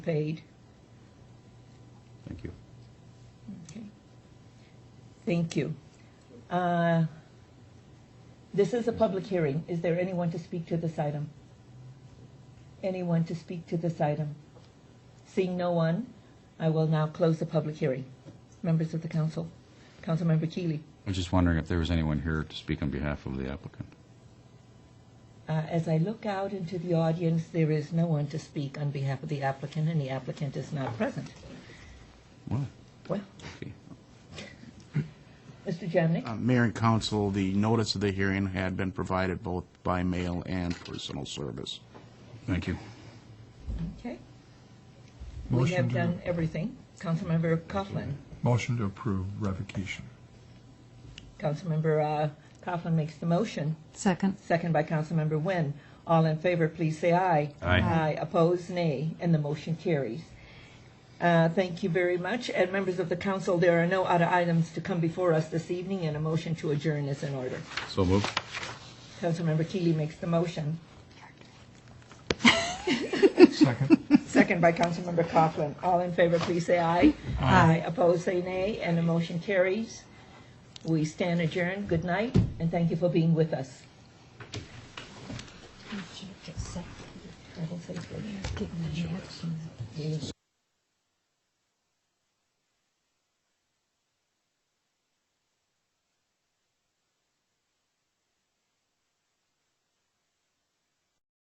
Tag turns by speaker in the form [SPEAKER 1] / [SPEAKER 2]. [SPEAKER 1] paid.
[SPEAKER 2] Thank you.
[SPEAKER 1] Okay. Thank you. Uh, This is a public hearing. Is there anyone to speak to this item? Anyone to speak to this item? Seeing no one, I will now close the public hearing. Members of the council, Councilmember Keely,
[SPEAKER 2] I was just wondering if there was anyone here to speak on behalf of the applicant.
[SPEAKER 1] uh, as I look out into the audience, there is no one to speak on behalf of the applicant, and the applicant is not present.
[SPEAKER 2] What?
[SPEAKER 1] Well,
[SPEAKER 2] Okay.
[SPEAKER 1] Mr. Jamnik?
[SPEAKER 3] Uh, Mayor and council, the notice of the hearing had been provided both by mail and personal service.
[SPEAKER 2] Thank you.
[SPEAKER 1] Okay. We
[SPEAKER 4] Motion
[SPEAKER 1] have
[SPEAKER 4] to-
[SPEAKER 1] done everything. Councilmember Coughlin.
[SPEAKER 4] Motion to approve revocation.
[SPEAKER 1] Councilmember uh, Coughlin makes the motion,
[SPEAKER 5] Second.
[SPEAKER 1] second by Councilmember Nguyen. All in favor, please say aye.
[SPEAKER 2] Aye.
[SPEAKER 1] Aye, opposed, nay, and the motion carries. Uh, Thank you very much. And members of the council, there are no other items to come before us this evening, and a motion to adjourn is in order.
[SPEAKER 2] So moved.
[SPEAKER 1] Councilmember Keely makes the motion,
[SPEAKER 4] Second.
[SPEAKER 1] second by Councilmember Coughlin. All in favor, please say aye. Aye, opposed, say nay, and the motion carries. We stand adjourned. Good night, and thank you for being with us. I will say good night.